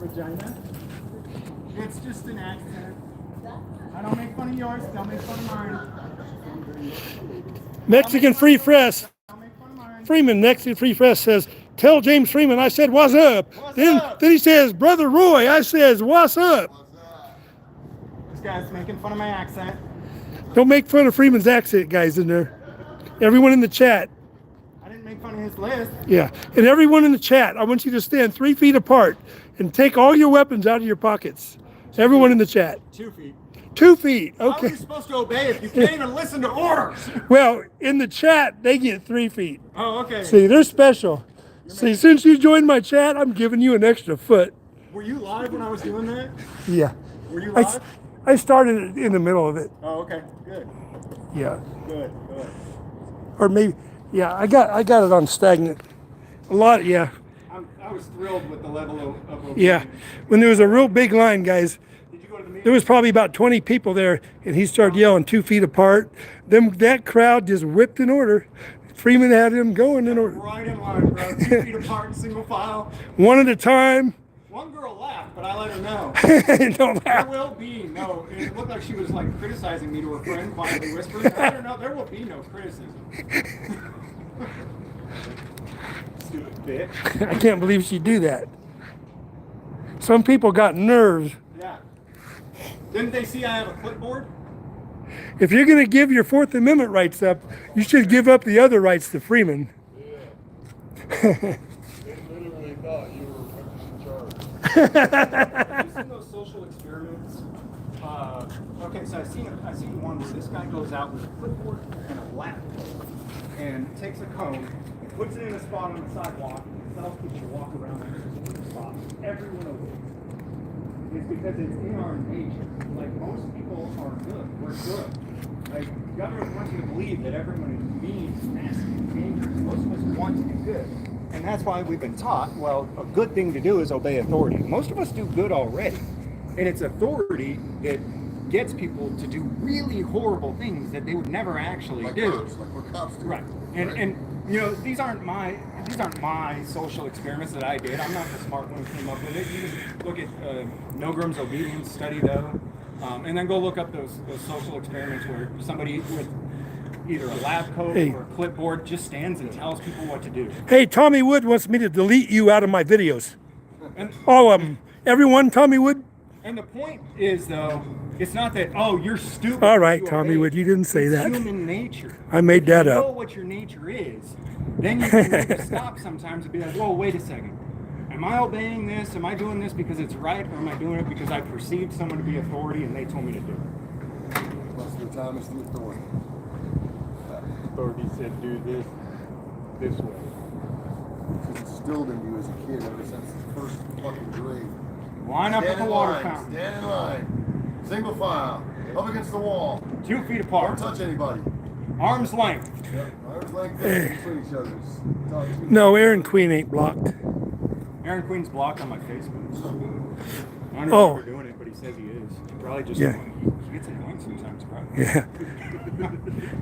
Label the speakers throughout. Speaker 1: vagina. It's just an accent. I don't make fun of yours, don't make fun of mine.
Speaker 2: Mexican Free Press.
Speaker 1: Don't make fun of mine.
Speaker 2: Freeman, Mexican Free Press says, Tell James Freeman I said, What's up?
Speaker 1: What's
Speaker 2: then,
Speaker 1: up?
Speaker 2: then he says, Brother Roy, I says, What's up?
Speaker 1: This guy's making fun of my accent.
Speaker 2: Don't make fun of Freeman's accent, guys, in there. Everyone in the chat.
Speaker 1: I didn't make fun of his list.
Speaker 2: Yeah. And everyone in the chat, I want you to stand three feet apart and take all your weapons out of your pockets. Everyone in the chat.
Speaker 1: Two feet.
Speaker 2: Two feet.
Speaker 1: How are
Speaker 2: Okay.
Speaker 1: you supposed to obey if you can't even listen to orders?
Speaker 2: Well, in the chat, they get three feet.
Speaker 1: Oh, okay.
Speaker 2: See, they're special. See, since you joined my chat, I'm giving you an extra foot.
Speaker 1: Were you live when I was doing that?
Speaker 2: Yeah.
Speaker 1: Were you
Speaker 2: I, s-
Speaker 1: live?
Speaker 2: I started in the middle of it.
Speaker 1: Oh, okay. Good.
Speaker 2: Yeah.
Speaker 1: Good. Good.
Speaker 2: Or maybe, yeah, I got I got it on stagnant. A lot, yeah.
Speaker 1: I, I was thrilled with the level of, of obedience.
Speaker 2: Yeah. When there was a real big line, guys,
Speaker 1: Did you go to the meeting?
Speaker 2: there was probably about 20 people there, and he started yelling two feet apart. Then that crowd just whipped in order. Freeman had him going in order,
Speaker 1: Right in line, bro. Two feet apart in single file.
Speaker 2: one at a time.
Speaker 1: One girl laughed, but I let her know.
Speaker 2: Don't
Speaker 1: There
Speaker 2: laugh.
Speaker 1: will be no. It looked like she was like criticizing me to her friend, quietly whispering. I don't know. There will be no criticism. Stupid bitch.
Speaker 2: I can't believe she'd do that. Some people got nerves.
Speaker 1: Yeah. Didn't they see I have a clipboard?
Speaker 2: If you're going to give your Fourth Amendment rights up, you should give up the other rights to Freeman.
Speaker 3: They literally thought you were fucking in charge.
Speaker 1: Have you seen those social experiments? Uh, okay, so I seen I seen one where this guy goes out with a clipboard and a laptop and takes a cone, and puts it in a spot on the sidewalk, and tells people to walk around the spot. Everyone obeys. It's because it's in our nature. Like most people are good. We're good. Like government wants you to believe that everyone is mean, nasty, dangerous. Most of us want to do good. And that's why we've been taught, well, a good thing to do is obey authority. Most of us do good already. And it's authority that gets people to do really horrible things that they would never actually
Speaker 3: Like
Speaker 1: do.
Speaker 3: cops, like what cops do.
Speaker 1: Right. And and you know, these aren't my these aren't my social experiments that I did. I'm not the smart one who came up with it. You just look at uh, Milgram's obedience study though. Um, and then go look up those, those social experiments where somebody with either a lab coat
Speaker 2: Hey.
Speaker 1: or a clipboard just stands and tells people what to do.
Speaker 2: Hey, Tommy Wood wants me to delete you out of my videos.
Speaker 1: And
Speaker 2: All of them. Everyone, Tommy Wood.
Speaker 1: and the point is though, it's not that oh you're stupid.
Speaker 2: All right,
Speaker 1: you
Speaker 2: Tommy
Speaker 1: obeyed."
Speaker 2: Wood, you didn't say
Speaker 1: It's
Speaker 2: that.
Speaker 1: Human nature.
Speaker 2: I made that
Speaker 1: know
Speaker 2: up.
Speaker 1: what your nature is, then you can make a stop sometimes and be like, whoa, wait a second. Am I obeying this? Am I doing this because it's right? Or am I doing it because I perceived someone to be authority and they told me to do it?
Speaker 3: Most of the time it's the authority.
Speaker 4: authority said do this this way.
Speaker 3: It's instilled in you as a kid ever since the first fucking grade.
Speaker 1: Line up at
Speaker 3: Stand
Speaker 1: the
Speaker 3: in
Speaker 1: water
Speaker 3: line,
Speaker 1: fountain,
Speaker 3: Stand in line. Single file. Up against the wall.
Speaker 1: two feet
Speaker 3: Don't
Speaker 1: apart,
Speaker 3: touch anybody.
Speaker 1: arm's length.
Speaker 3: Arms like this between each other. Just talk to you.
Speaker 2: No, Aaron Queen ain't blocked.
Speaker 1: Aaron Queen's blocked on my Facebook. I don't know
Speaker 2: Oh.
Speaker 1: if we're doing it, but he says he is. He probably just
Speaker 2: Yeah.
Speaker 1: he gets annoying sometimes, probably.
Speaker 2: Yeah.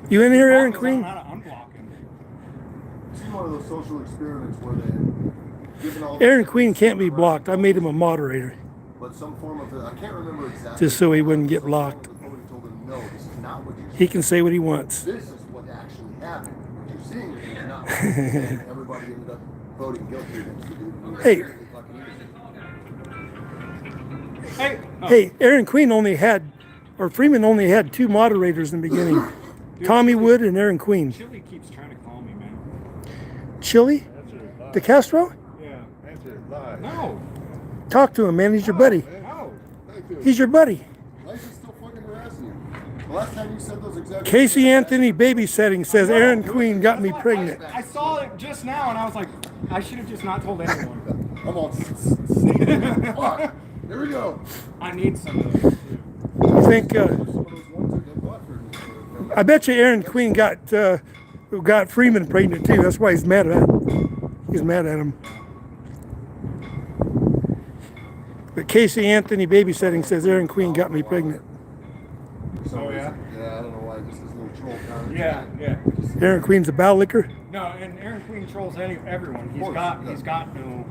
Speaker 2: You in here, Aaron Queen?
Speaker 1: I'm blocking.
Speaker 3: It's one of those social experiments where they giving all the-
Speaker 2: Aaron Queen can't be blocked. I made him a moderator.
Speaker 3: But some form of the, I can't remember exactly.
Speaker 2: Just so he wouldn't get
Speaker 3: Some form of
Speaker 2: blocked.
Speaker 3: authority told him, no, this is not what you should
Speaker 2: He can say what he wants.
Speaker 3: this is what actually happened. What you're seeing is not what you're saying. Everybody ended up voting guilty against the dude. who was
Speaker 2: Hey.
Speaker 3: really fucking innocent.
Speaker 1: Hey, oh,
Speaker 2: Hey, Aaron Queen only had, or Freeman only had two moderators in the beginning Tommy Wood and Aaron Queen.
Speaker 1: Chili keeps trying to call me, man.
Speaker 2: Chili?
Speaker 4: That's a lie.
Speaker 2: De Castro?
Speaker 1: Yeah.
Speaker 4: That's a lie.
Speaker 1: No.
Speaker 2: Talk to him, man. He's your buddy.
Speaker 1: No.
Speaker 3: Thank you.
Speaker 2: He's your buddy.
Speaker 3: Life is still fucking harassing you. The last time you said those exact
Speaker 2: Casey Anthony babysitting says Aaron Queen got me
Speaker 1: That's why
Speaker 2: pregnant.
Speaker 1: I, I saw it just now and I was like, I should have just not told anyone.
Speaker 3: I'm all. Fuck. There we go.
Speaker 1: I need some of those. too.
Speaker 2: You think? Uh,
Speaker 3: Some of those ones that get bought for me.
Speaker 2: I bet you Aaron Queen got uh, got Freeman pregnant too. That's why he's mad at he's mad at him. But Casey Anthony babysitting says Aaron Queen got me pregnant.
Speaker 3: So,
Speaker 1: Oh, yeah?
Speaker 3: Yeah, I don't know why. Just this little troll comment.
Speaker 1: Yeah, yeah.
Speaker 2: Aaron Queen's a bow licker.
Speaker 1: No, and Aaron Queen trolls any, everyone. He's
Speaker 3: course,
Speaker 1: got,
Speaker 3: yeah.
Speaker 1: he's got no.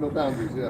Speaker 3: No boundaries. Yeah.